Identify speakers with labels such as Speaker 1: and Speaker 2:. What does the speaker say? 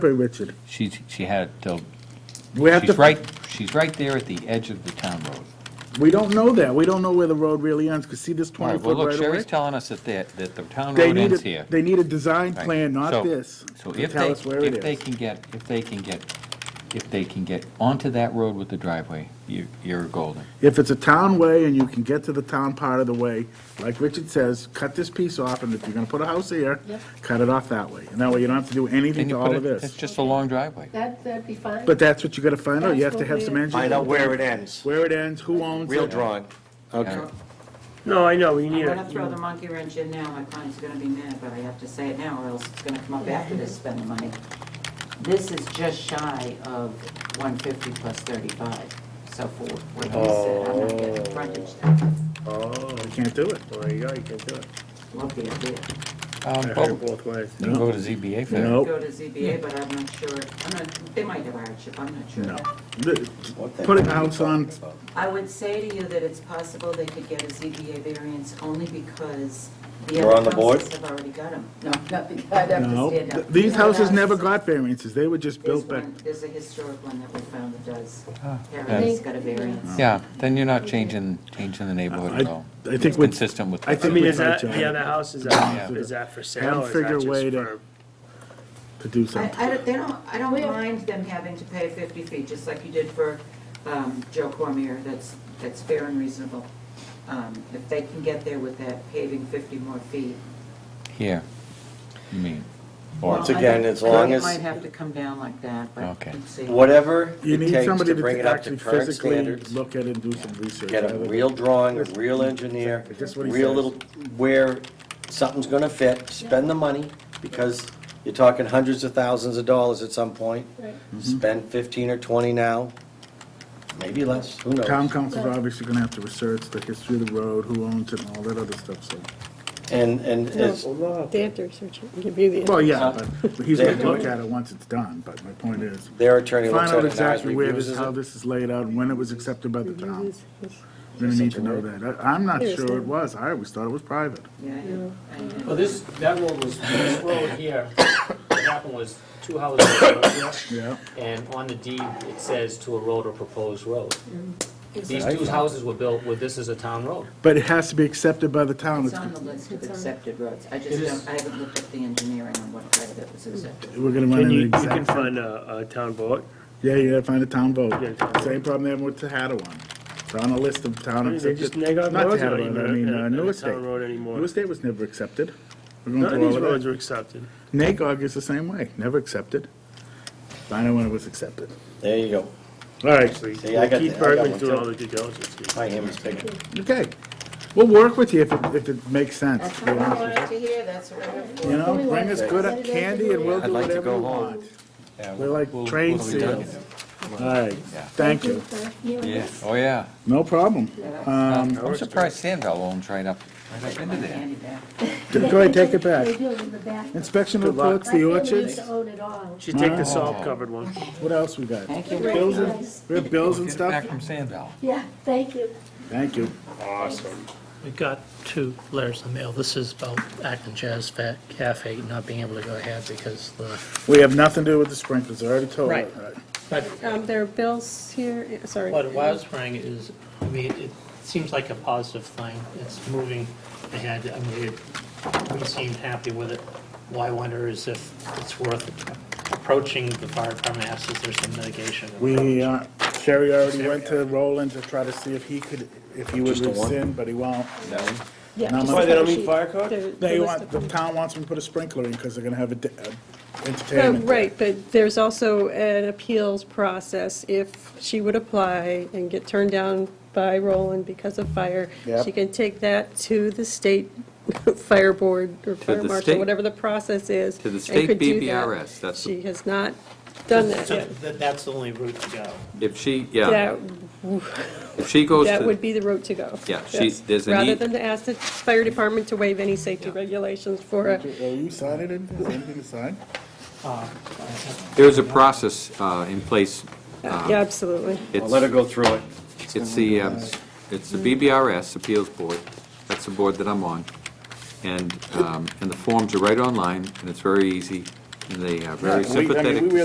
Speaker 1: Very Richard.
Speaker 2: She's, she had, till-
Speaker 1: We have to.
Speaker 2: she's right, she's right there at the edge of the town road.
Speaker 1: We don't know that. We don't know where the road really ends, because see this
Speaker 2: All right,
Speaker 1: twenty
Speaker 2: well,
Speaker 1: foot
Speaker 2: look,
Speaker 1: right away?
Speaker 2: Sherry's telling us that the, that the town
Speaker 1: They
Speaker 2: road
Speaker 1: need
Speaker 2: ends
Speaker 1: a,
Speaker 2: here.
Speaker 1: they need a design
Speaker 2: Right.
Speaker 1: plan,
Speaker 2: So-
Speaker 1: not this,
Speaker 2: So
Speaker 1: to
Speaker 2: if
Speaker 1: tell us where
Speaker 2: they,
Speaker 1: it
Speaker 2: if they
Speaker 1: is.
Speaker 2: can get, if they can get, if they can get onto that road with the driveway, you, you're golden.
Speaker 1: If it's a town way and you can get to the town part of the way, like Richard says, cut this piece off, and if you're gonna put a house here, cut it off that way. And that way you don't have to do anything
Speaker 2: Then you
Speaker 1: to
Speaker 2: put
Speaker 1: all
Speaker 2: it-
Speaker 1: of
Speaker 2: It's
Speaker 1: this.
Speaker 2: just a long driveway.
Speaker 3: That, that'd be fine.
Speaker 1: But that's what you gotta find out. You have
Speaker 3: That's
Speaker 1: to have
Speaker 3: what
Speaker 1: some
Speaker 3: we-
Speaker 1: engineering.
Speaker 4: Find out where it ends.
Speaker 1: Where it ends, who owns it.
Speaker 4: Real drawing.
Speaker 2: Yeah.
Speaker 5: No, I know, we need
Speaker 6: I'm
Speaker 5: it.
Speaker 6: gonna throw the monkey wrench in now, my client's gonna be mad, but I have to say it now, or else it's gonna come up after this, spend the money. This is just shy of one fifty plus thirty-five, so for what he said, I'm not getting frontage there.
Speaker 5: Oh,
Speaker 1: You can't do it.
Speaker 5: there you go, you can do it.
Speaker 6: Love the idea.
Speaker 5: I
Speaker 2: Um,
Speaker 5: heard
Speaker 2: but
Speaker 5: it both ways.
Speaker 2: You can go to ZBA for that.
Speaker 1: No.
Speaker 6: Go to ZBA, but I'm not sure, I'm not, they might have hardship, I'm not sure.
Speaker 1: No. The- Putting a house on,
Speaker 6: I would say to you that it's possible they could get a ZBA variance only because the
Speaker 4: You're on the
Speaker 6: other
Speaker 4: board?
Speaker 6: houses have already got them.
Speaker 3: No, nothing, I'd have to
Speaker 1: no.
Speaker 3: stand
Speaker 1: Th-
Speaker 3: up.
Speaker 1: These houses
Speaker 6: Yeah.
Speaker 1: never got variances. They were just
Speaker 6: There's
Speaker 1: built back.
Speaker 6: one, there's a historic one that we found that does,
Speaker 2: Ah,
Speaker 6: Harry's got a variance.
Speaker 2: Yeah, then you're not changing, changing the neighborhood at
Speaker 1: I,
Speaker 2: all.
Speaker 1: I think
Speaker 2: It's
Speaker 1: we're
Speaker 2: Consistent with.
Speaker 1: I
Speaker 5: I
Speaker 1: think-
Speaker 5: mean, is
Speaker 1: we tried
Speaker 5: that,
Speaker 1: to-
Speaker 5: the other house, is that,
Speaker 2: Yeah.
Speaker 5: is that for
Speaker 1: Haven't
Speaker 5: sale, or is
Speaker 1: figured a
Speaker 5: that
Speaker 1: way
Speaker 5: just
Speaker 1: to-
Speaker 5: for?
Speaker 1: to do
Speaker 6: I,
Speaker 1: something.
Speaker 6: I don't, they don't, I
Speaker 3: We-
Speaker 6: don't mind them having to pay fifty feet, just like you did for, um, Joe Cormier, that's, that's fair and reasonable. Um, if they can get there with that paving fifty more feet.
Speaker 2: Here, you mean,
Speaker 4: Once
Speaker 6: Well, I
Speaker 4: again,
Speaker 6: don't-
Speaker 4: as long
Speaker 6: I
Speaker 4: as-
Speaker 6: might have to come down like that, but
Speaker 2: Okay.
Speaker 6: let's see.
Speaker 4: Whatever
Speaker 1: You
Speaker 4: it
Speaker 1: need
Speaker 4: takes
Speaker 1: somebody
Speaker 4: to bring it
Speaker 1: to
Speaker 4: up to
Speaker 1: actually
Speaker 4: current
Speaker 1: physically
Speaker 4: standards.
Speaker 1: look at it and do some research.
Speaker 4: Get a
Speaker 1: I would-
Speaker 4: real drawing, a real engineer,
Speaker 1: Just what he
Speaker 4: real
Speaker 1: says.
Speaker 4: little, where something's gonna fit, spend the money, because you're talking hundreds of thousands of dollars at some point.
Speaker 3: Right.
Speaker 1: Mm-hmm.
Speaker 4: Spend fifteen or twenty now, maybe less, who
Speaker 1: Town
Speaker 4: knows?
Speaker 1: council's obviously gonna have to research the history of the road, who owns it and all that other stuff, so.
Speaker 4: And, and it's,
Speaker 7: They have to research it and give you the.
Speaker 1: Well, yeah,
Speaker 4: Uh,
Speaker 1: but he's gonna
Speaker 4: they're
Speaker 1: look
Speaker 4: doing-
Speaker 1: at it once it's done, but my point is,
Speaker 4: their attorney
Speaker 1: find
Speaker 4: looks at
Speaker 1: out
Speaker 4: it and ours
Speaker 1: exactly where
Speaker 4: reviews
Speaker 1: this,
Speaker 4: it.
Speaker 1: how this is laid out and when it was accepted by the town.
Speaker 7: answers.
Speaker 1: We're gonna need to know that. I- I'm not
Speaker 7: There is
Speaker 1: sure it
Speaker 7: no-
Speaker 1: was. I always thought it was private.
Speaker 6: Yeah, I- I-
Speaker 8: Well, this, that road was, this road here, what happened was two houses were up here,
Speaker 1: Yeah.
Speaker 8: and on the deed, it says to a road or proposed road. These two houses were built where this is a town road.
Speaker 1: But it has to be accepted by the town.
Speaker 6: It's
Speaker 1: It's-
Speaker 6: on the list of accepted roads, I just
Speaker 8: It is-
Speaker 6: don't, I haven't looked at the engineering on what part of it was accepted.
Speaker 1: We're gonna run
Speaker 5: Can
Speaker 1: into
Speaker 5: you, you
Speaker 1: exact.
Speaker 5: can find a, a town vote,
Speaker 1: Yeah, you gotta find a town vote.
Speaker 5: Yeah, town vote.
Speaker 1: Same problem they have with Tehadawon. It's on a list of town
Speaker 5: They
Speaker 1: accepted.
Speaker 5: just neg on
Speaker 1: Not
Speaker 5: roads
Speaker 1: Tehadawon,
Speaker 5: anymore,
Speaker 1: I mean,
Speaker 5: uh,
Speaker 1: uh,
Speaker 5: not
Speaker 1: New
Speaker 5: a
Speaker 1: Estate.
Speaker 5: town road anymore.
Speaker 1: New Estate was never accepted. We're going
Speaker 5: none of
Speaker 1: through
Speaker 5: these
Speaker 1: all of
Speaker 5: roads
Speaker 1: that.
Speaker 5: are accepted.
Speaker 1: Nagog is the same way, never accepted. Find out when it was accepted.
Speaker 4: There you go,
Speaker 1: All right,
Speaker 5: Actually,
Speaker 4: See, I got the-
Speaker 5: Keith
Speaker 4: I got
Speaker 5: Bergman's
Speaker 4: one
Speaker 5: doing
Speaker 4: too.
Speaker 5: all the due diligence.
Speaker 4: my hand is bigger.
Speaker 1: okay. We'll work with you if it, if it makes sense.
Speaker 3: That's
Speaker 1: to be
Speaker 3: what I
Speaker 1: honest with
Speaker 3: wanted to hear, that's what I'm here
Speaker 1: You
Speaker 3: for.
Speaker 1: You know, bring us good
Speaker 3: Saturday night
Speaker 1: candy and we'll
Speaker 4: I'd
Speaker 1: do
Speaker 4: like to
Speaker 1: whatever
Speaker 4: go
Speaker 1: you
Speaker 4: home.
Speaker 1: want.
Speaker 2: yeah.
Speaker 1: We're like
Speaker 2: we'll-
Speaker 1: train
Speaker 2: what are we doing?
Speaker 1: seals. All right,
Speaker 2: Yeah.
Speaker 1: thank you.
Speaker 2: Yeah, oh, yeah.
Speaker 1: No problem. Um,
Speaker 2: I'm surprised Sandville owns right up, right up into there.
Speaker 6: Handy back.
Speaker 1: go ahead, take it back.
Speaker 3: They do in the back.
Speaker 1: Inspection
Speaker 5: Good luck.
Speaker 1: reports, the
Speaker 3: My family used
Speaker 1: orchards,
Speaker 3: to own it all.
Speaker 5: Should take
Speaker 4: Oh.
Speaker 5: the salt covered one.
Speaker 1: what else we got?
Speaker 6: Thank you.
Speaker 1: Bills and,
Speaker 3: Nice.
Speaker 1: we have bills and
Speaker 2: Get it back
Speaker 1: stuff?
Speaker 2: from Sandville.
Speaker 3: Yeah, thank you.
Speaker 1: Thank you.
Speaker 9: We got two letters in the mail. This is about Acton Jazz Fa- Cafe not being able to go ahead because the,
Speaker 1: We have nothing to do with the sprinklers, I already told you.
Speaker 9: Right. but
Speaker 7: Um, there are bills here, eh, sorry.
Speaker 9: what I was worrying is, I mean, it seems like a positive thing. It's moving ahead. I mean, it- we seemed happy with it. Why wonder is if it's worth approaching the fire department, ask if there's some mitigation.
Speaker 1: We, uh, Sherry already went to Roland to try to see if he could, if he would
Speaker 4: Just the one?
Speaker 1: rescind, but he won't.
Speaker 7: Yeah,
Speaker 1: Now,
Speaker 7: just
Speaker 1: Why,
Speaker 5: they don't
Speaker 7: the
Speaker 5: need fire code?
Speaker 7: sheet. The- the
Speaker 1: They
Speaker 7: list
Speaker 1: want,
Speaker 7: of
Speaker 1: the
Speaker 7: them.
Speaker 1: town wants him to put a sprinkler in because they're gonna have a d- a
Speaker 7: Oh,
Speaker 1: entertainment.
Speaker 7: right, but there's also an appeals process. If she would apply and get turned down by Roland because of fire,
Speaker 1: Yep.
Speaker 7: she can take that to the state fire board or fire
Speaker 10: the
Speaker 7: marshal,
Speaker 10: state-
Speaker 7: whatever the process is.
Speaker 10: to the
Speaker 7: and
Speaker 10: state
Speaker 7: could do that.
Speaker 10: BBRS, that's the-
Speaker 7: She has not done that
Speaker 9: So
Speaker 7: yet.
Speaker 9: that- that's the only route to go.
Speaker 10: If she, yeah,
Speaker 7: That,
Speaker 10: if she goes
Speaker 7: that would
Speaker 10: to,
Speaker 7: be the route to go.
Speaker 10: Yeah, she-
Speaker 7: Yes.
Speaker 10: there's a
Speaker 7: Rather
Speaker 10: need-
Speaker 7: than to ask the fire department to waive any safety regulations for a
Speaker 1: Are you signing anything? Is anything to sign?
Speaker 9: Uh,
Speaker 10: there's a process uh, in place.
Speaker 7: Yeah, absolutely.
Speaker 4: Well, let her
Speaker 10: It's,
Speaker 4: go through it.
Speaker 10: it's the, um, it's the BBRS Appeals Board. That's the board that I'm on. And, um, and the forms are right online, and it's very easy.
Speaker 2: They
Speaker 1: Yeah,
Speaker 2: are
Speaker 1: we-
Speaker 2: very
Speaker 1: I mean,
Speaker 2: sympathetic
Speaker 1: we
Speaker 2: to